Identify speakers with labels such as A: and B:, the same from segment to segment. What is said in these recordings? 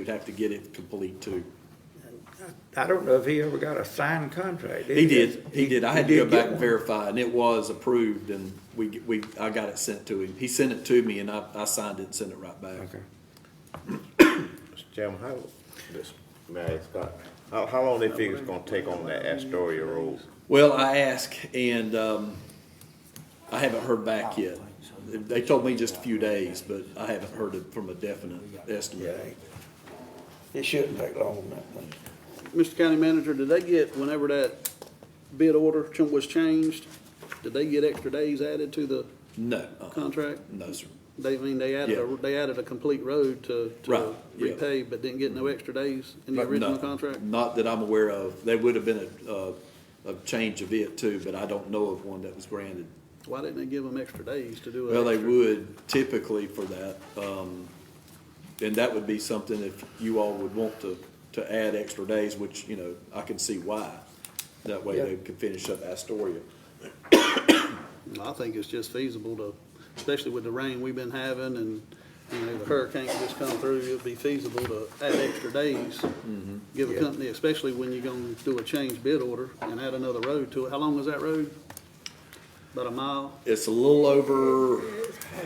A: We'd have to get it complete too.
B: I don't know if he ever got a signed contract.
A: He did, he did. I had to
B: he
A: go
B: did
A: back
B: get
A: and
B: one.
A: verify, and it was approved, and we, we, I got it sent to him. He sent it to me, and I, I signed it and sent it right back.
B: Okay.
C: Mr. Chairman, how, this, may I ask, uh, how, how long they figure it's gonna take on that Astoria Road?
A: Well, I asked, and, um, I haven't heard back yet. They told me just a few days, but I haven't heard it from a definite estimate.
B: It shouldn't take long, that one.
D: Mr. County Manager, did they get, whenever that bid order ch- was changed, did they get extra days added to the
A: No, uh-uh.
D: contract?
A: no, sir.
D: They, I mean, they added,
A: Yeah.
D: a they added a complete road to,
A: Right,
D: to
A: yeah.
D: repave, but didn't get no extra days in the
A: But
D: original
A: no,
D: contract?
A: Not that I'm aware of. There would have been a, a, a change of it too, but I don't know of one that was granted.
D: Why didn't they give them extra days to do it?
A: Well, they would typically for that, um, and that would be something if you all would want to, to add extra days, which, you know, I can see why. That way they could finish up Astoria.
D: I think it's just feasible to, especially with the rain we've been having and, you know, the hurricane just come through, it'd be feasible to add extra days. Give a company, especially when you're gonna do a change bid order and add another road to it. How long was that road? About a mile?
A: It's a little over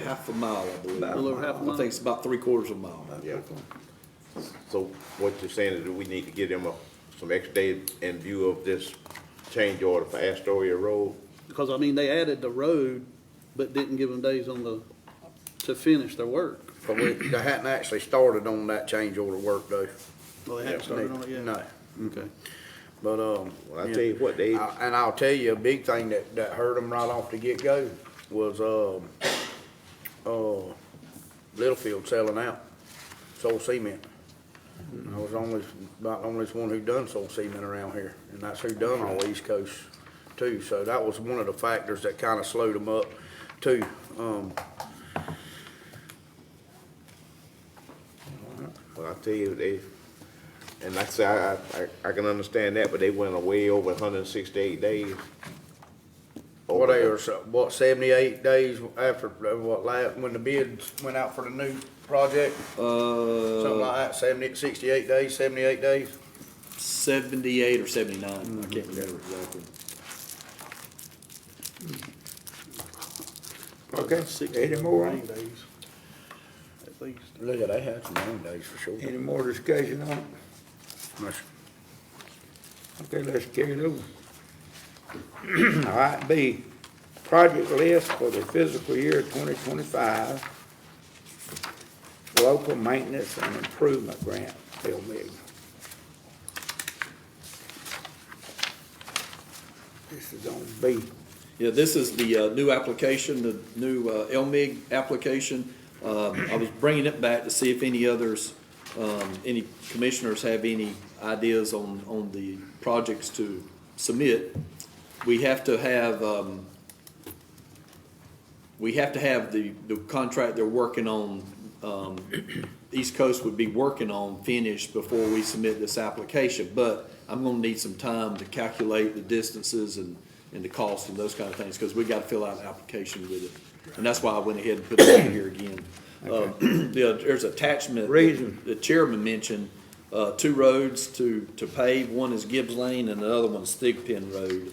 A: half a mile, I believe.
D: A little over half a
A: I
D: mile?
A: think it's about three quarters of a mile.
C: Yeah. So what you're saying is that we need to give them a, some extra day in view of this change order for Astoria Road?
D: Because, I mean, they added the road, but didn't give them days on the, to finish their work.
E: But we, they hadn't actually started on that change order work though.
D: Well, they Mm-hmm. haven't started on it yet?
E: No,
D: Okay.
E: but, um.
C: Well, I tell you what, they-
E: I- And I'll tell you, a big thing that, that hurt them right off the get-go was, um, uh, Littlefield selling out, Soul Cement. I was only, about the only one who done Soul Cement around here, and that's who done all East Coast too. So that was one of the factors that kinda slowed them up too. Um,
C: Well, I tell you, they, and like I say, I, I, I can understand that, but they went away over hundred and sixty-eight days.
E: What
C: Over
E: they
C: the-
E: were, so- what, seventy-eight days after, uh, what, last, when the bids went out for the new project? Something
A: Uh,
E: like that, seventy, sixty-eight days, seventy-eight days?
A: seventy-eight or seventy-nine, I can't remember exactly.
B: Okay,
D: Six
B: any more,
D: rain days, At least.
E: Look at, they had some long days for sure.
B: any more discussion on it? Okay, let's carry it over. All right, B, project list for the fiscal year twenty twenty-five, local maintenance and improvement grant, Bill Mig. This is on B.
A: Yeah, this is the uh, new application, the new uh, LMIG application. Um, I was bringing it back to see if any others, um, any commissioners have any ideas on, on the projects to submit. We have to have, um, we have to have the, the contract they're working on, um, East Coast would be working on finished before we submit this application. But I'm gonna need some time to calculate the distances and, and the cost and those kind of things, because we gotta fill out an application with it. And that's why I went ahead and put it in here again. Uh, the- there's attachment.
B: Reason.
A: The chairman mentioned, uh, two roads to, to pave. One is Gibbs Lane and the other one's Thigpen Road.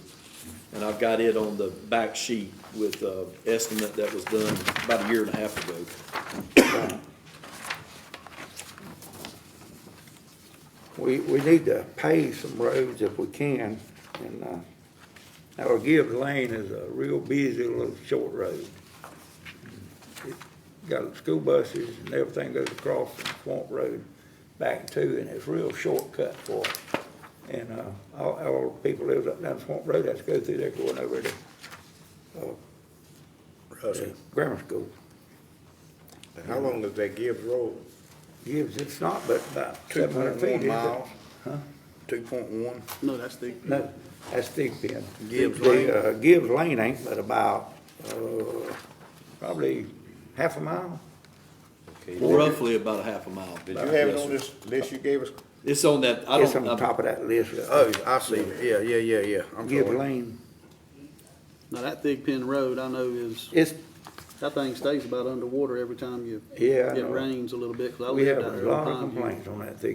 A: And I've got it on the back sheet with, uh, estimate that was done about a year and a half ago.
B: We, we need to pave some roads if we can, and, uh, our Gibbs Lane is a real busy little short road. It Got school buses and everything goes across from Swamp Road back too, and it's real shortcut for us. And, uh, all, all the people lives up down Swamp Road, has to go through there going over to, uh, grammar school.
C: And How long is that Gibbs Road?
B: Gibbs, it's not but about
E: Two
B: seven hundred
E: point
B: feet, is
E: one
B: it?
E: miles. Two point one.
D: No, that's the,
B: No, that's Thigpen. Pen.
E: Gibbs
B: The,
E: Lane?
B: uh, Gibbs Lane ain't but about, uh, probably half a mile.
A: Roughly about a half a mile.
C: Did you have it on this list you gave us?
A: It's on that, I
B: It's on the
A: don't, I-
B: top of that list.
E: Oh, I see, yeah, yeah, yeah, yeah, I'm
B: Gibbs
E: sorry.
B: Lane,
D: now that Thigpen Road, I know is
B: it's
D: That thing stays about underwater every time you,
B: Yeah, I
D: it
B: know.
D: rains a little bit, 'cause I
B: We
D: live
B: have
D: down
B: a
D: there all
B: lot
D: the
B: of
D: time. You-
B: complaints on that thing.